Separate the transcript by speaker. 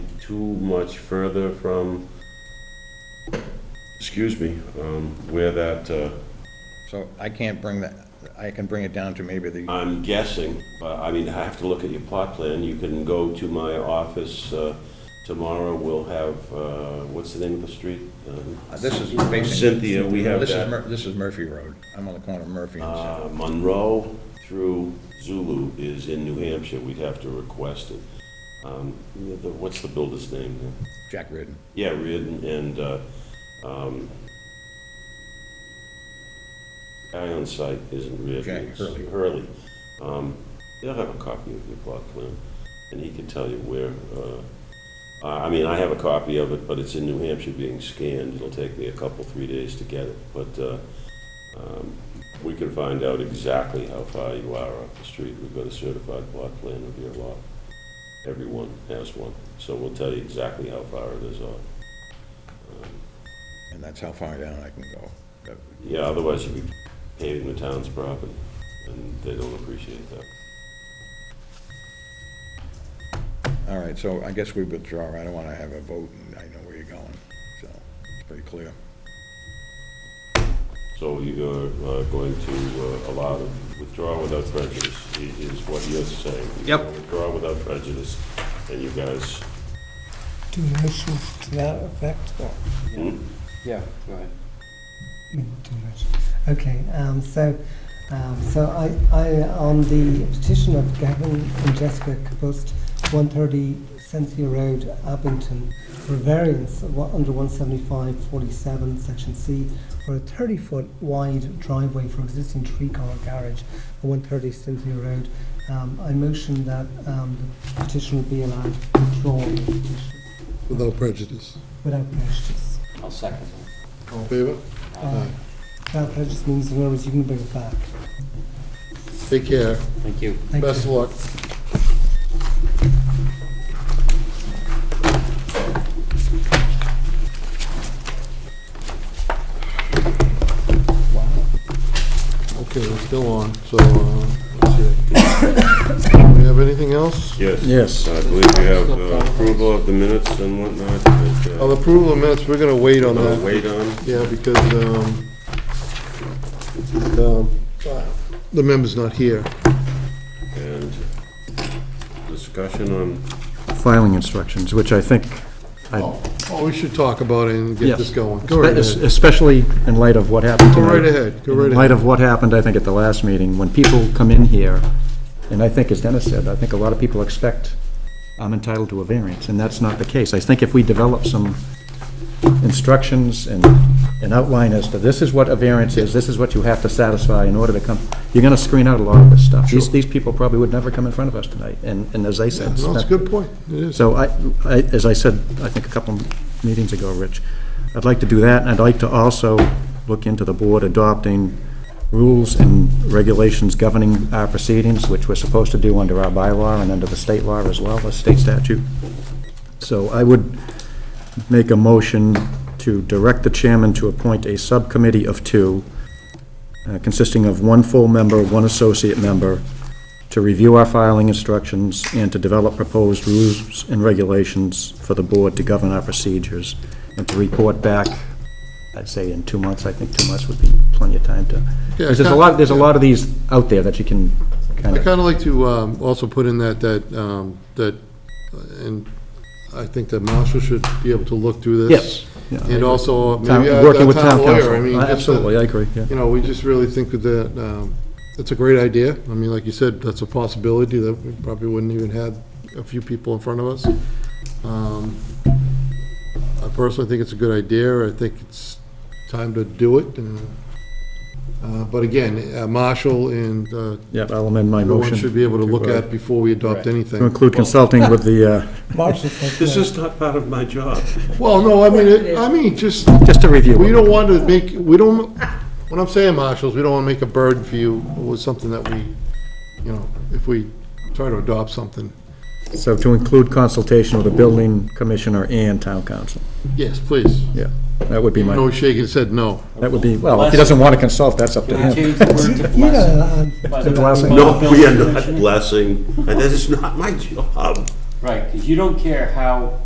Speaker 1: too much further from, excuse me, um, where that, uh,
Speaker 2: So I can't bring that, I can bring it down to maybe the, uh,
Speaker 1: I'm guessing, but I mean, I have to look at your plot plan. You can go to my office uh, tomorrow. We'll have, uh, what's the name of the street? Um,
Speaker 2: uh, this is facing.
Speaker 1: Cynthia, we have
Speaker 2: This is,
Speaker 1: that.
Speaker 2: Mur- this is Murphy Road. I'm on the corner of Murphy and Cynthia.
Speaker 1: Uh, Monroe through Zulu is in New Hampshire. We'd have to request it. Um, the- the- What's the builder's name?
Speaker 2: Jack Ridden.
Speaker 1: Yeah, Reardon and, uh, um, guy on site isn't Reardon.
Speaker 2: Jack
Speaker 1: it's
Speaker 2: Hurley.
Speaker 1: Hurley. Um, They'll have a copy of your plot plan, and he can tell you where, uh, I I mean, I have a copy of it, but it's in New Hampshire being scanned. It'll take me a couple, three days to get it, but, uh, um, we can find out exactly how far you are off the street. We've got a certified plot plan of your lot. Everyone has one, so we'll tell you exactly how far it is off.
Speaker 2: And that's how far down I can go. But
Speaker 1: Yeah, otherwise you'd be paving the town's property, and they don't appreciate that.
Speaker 2: All right, so I guess we withdraw. I don't want to have a vote, and I know where you're going, so it's pretty clear.
Speaker 1: So you're uh, going to uh, allow them to withdraw without prejudice, i- is what you're saying. You're
Speaker 2: Yep.
Speaker 1: gonna Withdraw without prejudice, and you guys,
Speaker 3: Do motions to that effect?
Speaker 1: hmm?
Speaker 4: Yeah, go ahead.
Speaker 3: Mm, too much. Okay, um, so, um, so I, I, on the petition of Gavin and Jessica Kabust, one thirty Cynthia Road, Abington, for variance of what- under one seventy-five forty-seven, section C, for a thirty-foot wide driveway for existing three-car garage at one thirty Cynthia Road. Um, I motion that, um, the petition be allowed to withdraw the petition
Speaker 5: Without prejudice.
Speaker 3: without prejudice.
Speaker 4: I'll second that.
Speaker 5: All in favor?
Speaker 3: Uh, That prejudice means, in other words, you can bring it back.
Speaker 5: Take care.
Speaker 4: Thank you.
Speaker 3: Thank
Speaker 5: Best
Speaker 3: you.
Speaker 5: of luck. Okay, we're still on, so, uh, let's see. Do we have anything else?
Speaker 1: Yes. Yes. I believe you have uh, approval of the minutes and whatnot, but,
Speaker 5: On
Speaker 1: uh,
Speaker 5: the approval of minutes, we're gonna wait on
Speaker 1: uh,
Speaker 5: that.
Speaker 1: wait on.
Speaker 5: Yeah, because, um, um, the member's not here.
Speaker 1: And discussion on,
Speaker 6: filing instructions, which I think, I-
Speaker 5: Oh, we should talk about it and get
Speaker 6: Yes.
Speaker 5: this going. Go right ahead.
Speaker 6: especially in light of what happened
Speaker 5: Go
Speaker 6: tonight.
Speaker 5: right ahead, go right
Speaker 6: In
Speaker 5: ahead.
Speaker 6: light of what happened, I think, at the last meeting, when people come in here, and I think, as Dennis said, I think a lot of people expect I'm entitled to a variance, and that's not the case. I think if we develop some instructions and an outline as to this is what a variance is, this is what you have to satisfy in order to come, you're going to screen out a lot of this stuff. These, these people probably would never come in front of us tonight, and, and as I said.
Speaker 5: No, it's a good point. It is.
Speaker 6: So I, I, as I said, I think a couple meetings ago, Rich, I'd like to do that, and I'd like to also look into the board adopting rules and regulations governing our proceedings, which we're supposed to do under our bylaw and under the state law as well, the state statute. So I would make a motion to direct the chairman to appoint a subcommittee of two, uh, consisting of one full member, one associate member, to review our filing instructions and to develop proposed rules and regulations for the board to govern our procedures, and to report back, I'd say in two months, I think two months would be plenty of time to,
Speaker 5: Yeah,
Speaker 6: because there's a lot, there's a lot of these out there that you can
Speaker 5: I
Speaker 6: kind of,
Speaker 5: kind of like to um, also put in that, that, um, that, uh, and I think that Marshall should be able to look through
Speaker 6: yes.
Speaker 5: this.
Speaker 6: yeah, I
Speaker 5: And
Speaker 6: agree.
Speaker 5: also,
Speaker 6: Town-
Speaker 5: maybe uh,
Speaker 6: working
Speaker 5: the
Speaker 6: with
Speaker 5: town
Speaker 6: council. Uh,
Speaker 5: lawyer, I mean. just that-
Speaker 6: Absolutely, I agree, yeah.
Speaker 5: You know, we just really think that, um, it's a great idea. I mean, like you said, that's a possibility that we probably wouldn't even have a few people in front of us. Um, I personally think it's a good idea. I think it's time to do it. and, uh, But again, uh, Marshall and uh,
Speaker 6: Yeah, I'll amend my motion.
Speaker 5: everyone should be able to look
Speaker 6: uh,
Speaker 5: at before we adopt
Speaker 6: To
Speaker 5: anything.
Speaker 6: include consulting with the, uh,
Speaker 3: Marshall says
Speaker 1: This
Speaker 3: no.
Speaker 1: is not part of my job.
Speaker 5: Well, no, I mean, it- I mean, just,
Speaker 6: just to review.
Speaker 5: we
Speaker 6: it.
Speaker 5: don't want to make, we don't, what I'm saying, Marshall, is we don't want to make a burden for you with something that we, you know, if we try to adopt something.
Speaker 6: So to include consultation with the building commissioner and town council.
Speaker 5: Yes, please.
Speaker 6: Yeah, that would be my,
Speaker 5: No shake and said no.
Speaker 6: that would be, well, if he doesn't want to consult, that's up to
Speaker 4: Can we
Speaker 6: him.
Speaker 4: change the word to
Speaker 3: You know,
Speaker 4: blessing? By the-
Speaker 6: blessing.
Speaker 4: by the
Speaker 1: No, we
Speaker 4: building
Speaker 1: are not
Speaker 4: commissioner?
Speaker 1: blessing, and that is not my job.
Speaker 4: Right, because you don't care how